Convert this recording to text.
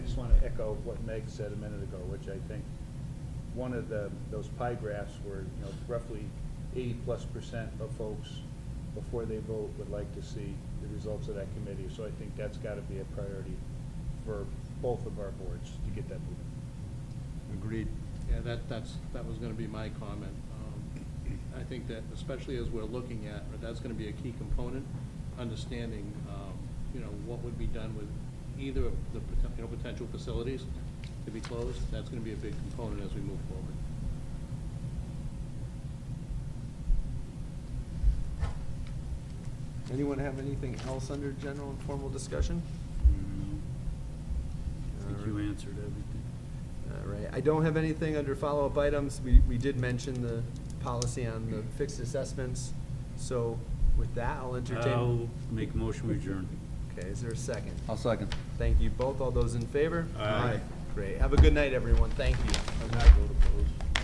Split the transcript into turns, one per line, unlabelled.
echo what Meg said a minute ago, which I think, one of the, those pie graphs were, you know, roughly eighty-plus percent of folks, before they vote, would like to see the results of that committee. So I think that's gotta be a priority for both of our boards to get that moving.
Agreed.
Yeah, that, that's, that was gonna be my comment. Um, I think that especially as we're looking at, that's gonna be a key component, understanding, um, you know, what would be done with either of the, poten- you know, potential facilities to be closed. That's gonna be a big component as we move forward.
Anyone have anything else under general and formal discussion?
I think you answered everything.
All right, I don't have anything under follow-up items. We, we did mention the policy on the fixed assessments. So with that, I'll
I'll
entertain.
make motion we adjourn.
Okay, is there a second?
I'll second.
Thank you both. All those in favor?
Aye.
Great. Have a good night, everyone. Thank you.